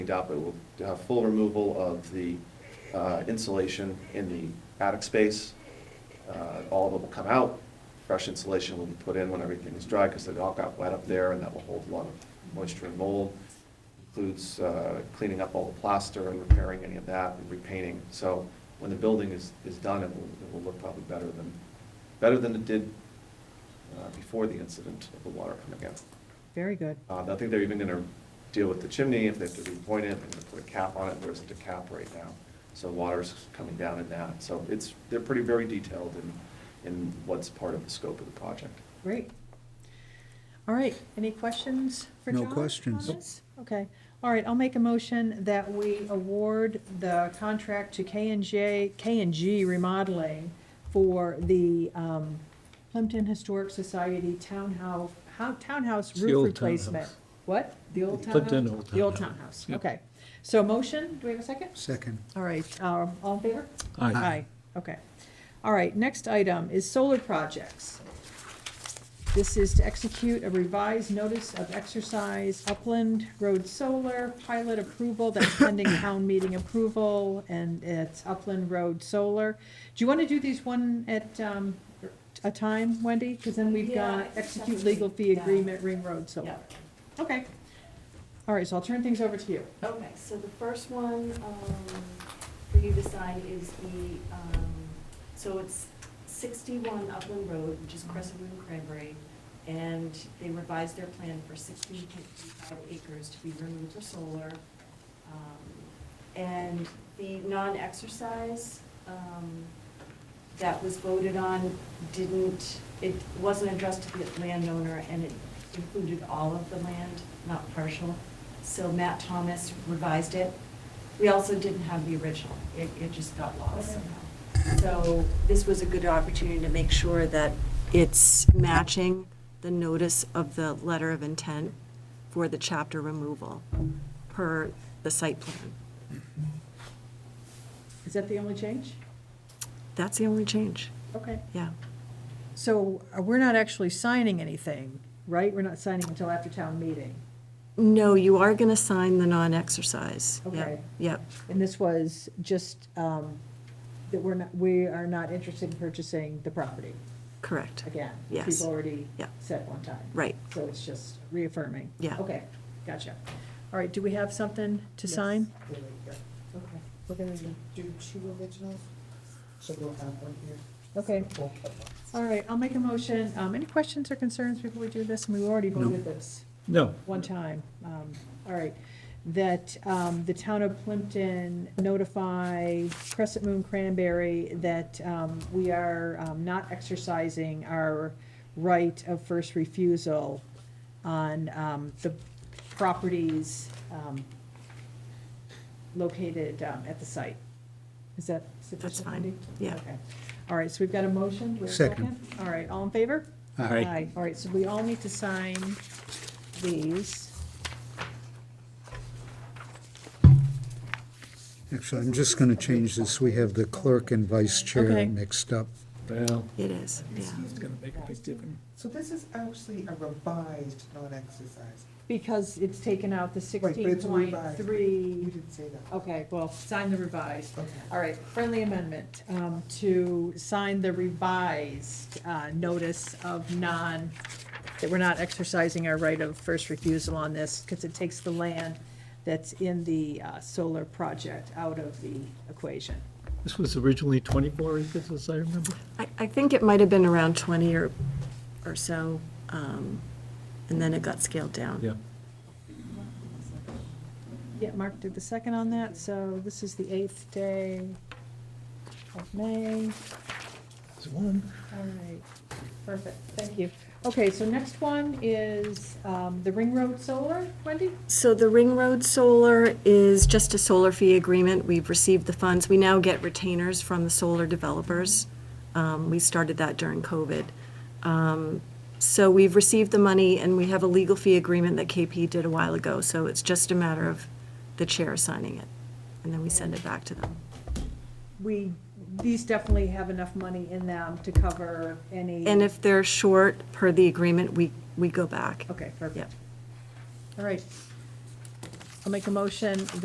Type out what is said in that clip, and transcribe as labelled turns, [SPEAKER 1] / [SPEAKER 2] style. [SPEAKER 1] cleaned up. It will have full removal of the uh, insulation in the attic space. Uh, All of it will come out. Fresh insulation will be put in when everything is dry because it all got wet up there and that will hold a lot of moisture and mold. Includes uh, cleaning up all the plaster and repairing any of that and repainting. So when the building is, is done, it will, it will look probably better than, better than it did uh, before the incident of the water coming out.
[SPEAKER 2] Very good.
[SPEAKER 1] Uh, I think they're even gonna deal with the chimney, if they have to repoint it, they're gonna put a cap on it, there isn't a cap right now. So water's coming down in that, so it's, they're pretty very detailed in, in what's part of the scope of the project.
[SPEAKER 2] Great. All right, any questions for
[SPEAKER 3] No
[SPEAKER 2] John?
[SPEAKER 3] questions.
[SPEAKER 2] Comments? Okay, all right, I'll make a motion that we award the contract to K and J, K and G Remodeling for the um, Plimpton Historic Society Townhouse, how- Townhouse
[SPEAKER 3] It's the
[SPEAKER 2] Roof
[SPEAKER 3] old
[SPEAKER 2] Replacement.
[SPEAKER 3] townhouse.
[SPEAKER 2] What? The old townhouse?
[SPEAKER 3] Plimpton old
[SPEAKER 2] The old townhouse,
[SPEAKER 3] townhouse. Yep.
[SPEAKER 2] okay. So motion, do we have a second?
[SPEAKER 3] Second.
[SPEAKER 2] All right, um, all in favor?
[SPEAKER 3] Aye.
[SPEAKER 2] Aye, okay. All right, next item is solar projects. This is to execute a revised notice of exercise Upland Road Solar pilot approval, that's pending town meeting approval, and it's Upland Road Solar. Do you want to do these one at um, a time, Wendy? Because then we've
[SPEAKER 4] Yeah,
[SPEAKER 2] got
[SPEAKER 4] it's
[SPEAKER 2] execute
[SPEAKER 4] definitely-
[SPEAKER 2] legal fee
[SPEAKER 4] yeah.
[SPEAKER 2] agreement, Ring Road
[SPEAKER 4] Yeah.
[SPEAKER 2] Solar. Okay. All right, so I'll turn things over to you.
[SPEAKER 4] Okay, so the first one um, for you to sign is the, um, so it's 61 Upland Road, which is Crescent Moon Cranberry, and they revised their plan for 16.25 acres to be removed for solar. Um, And the non-exercise um, that was voted on didn't, it wasn't addressed to the landowner, and it included all of the land, not partial. So Matt Thomas revised it. We also didn't have the original. It, it just got lost somehow. So this was a good opportunity to make sure that it's matching the notice of the letter of intent for the chapter removal per the site plan.
[SPEAKER 2] Is that the only change?
[SPEAKER 4] That's the only change,
[SPEAKER 2] Okay.
[SPEAKER 4] yeah.
[SPEAKER 2] So uh, we're not actually signing anything, right? We're not signing until after town meeting.
[SPEAKER 4] No, you are going to sign the non-exercise. Yep,
[SPEAKER 2] Okay.
[SPEAKER 4] Yep,
[SPEAKER 2] And this was just um, that we're not, we are not interested in purchasing the property
[SPEAKER 4] correct,
[SPEAKER 2] again. which
[SPEAKER 4] Yes.
[SPEAKER 2] We've already
[SPEAKER 4] Yeah.
[SPEAKER 2] said one time.
[SPEAKER 4] right.
[SPEAKER 2] So it's just reaffirming.
[SPEAKER 4] Yeah.
[SPEAKER 2] Okay, gotcha. All right, do we have something to sign?
[SPEAKER 4] Okay.
[SPEAKER 5] We're gonna do two originals, so we'll have one here.
[SPEAKER 2] Okay,
[SPEAKER 5] We'll cut
[SPEAKER 2] all right, I'll make a motion. Um, Any questions or concerns before we do this? And we already
[SPEAKER 3] No.
[SPEAKER 2] voted this.
[SPEAKER 3] No.
[SPEAKER 2] one time, um, all right, that um, the town of Plimpton notify Crescent Moon Cranberry that um, we are um, not exercising our right of first refusal on um, the properties um, located um, at the site. Is that
[SPEAKER 4] That's
[SPEAKER 2] sufficient,
[SPEAKER 4] fine,
[SPEAKER 2] Wendy?
[SPEAKER 4] yeah.
[SPEAKER 2] Okay. All right, so we've got a motion. Do we have a
[SPEAKER 3] Second.
[SPEAKER 2] All right, all in favor?
[SPEAKER 3] Aye.
[SPEAKER 2] All right, so we all need to sign these.
[SPEAKER 3] Actually, I'm just going to change this. We have the clerk and vice
[SPEAKER 2] Okay.
[SPEAKER 3] chair mixed up.
[SPEAKER 6] Well,
[SPEAKER 4] It is, yeah.
[SPEAKER 5] Excuse me,
[SPEAKER 6] make a big difference.
[SPEAKER 5] so this is actually a revised, not exercise.
[SPEAKER 2] Because it's taken out the
[SPEAKER 5] Right, but
[SPEAKER 2] sixteen
[SPEAKER 5] it's a
[SPEAKER 2] point
[SPEAKER 5] revised. You
[SPEAKER 2] three.
[SPEAKER 5] didn't say that.
[SPEAKER 2] Okay, well, sign the revised.
[SPEAKER 5] Okay.
[SPEAKER 2] All right, friendly amendment um, to sign the revised uh, notice of non, that we're not exercising our right of first refusal on this because it takes the land that's in the uh, solar project out of the equation.
[SPEAKER 6] This was originally 24 acres, as I remember.
[SPEAKER 4] I, I think it might have been around 20 or, or so, um, and then it got scaled down.
[SPEAKER 2] Yeah, Mark did the second on that, so this is the eighth day of May.
[SPEAKER 6] There's one.
[SPEAKER 2] All right, perfect, thank you. Okay, so next one is um, the Ring Road Solar, Wendy?
[SPEAKER 4] So the Ring Road Solar is just a solar fee agreement. We've received the funds. We now get retainers from the solar developers. Um, We started that during COVID. Um, So we've received the money, and we have a legal fee agreement that KP did a while ago. So it's just a matter of the chair signing it, and then we send it back to them.
[SPEAKER 2] We, these definitely have enough money in them to cover any.
[SPEAKER 4] And if they're short per the agreement, we, we go back.
[SPEAKER 2] Okay,
[SPEAKER 4] Yeah.
[SPEAKER 2] perfect. All right. I'll make a motion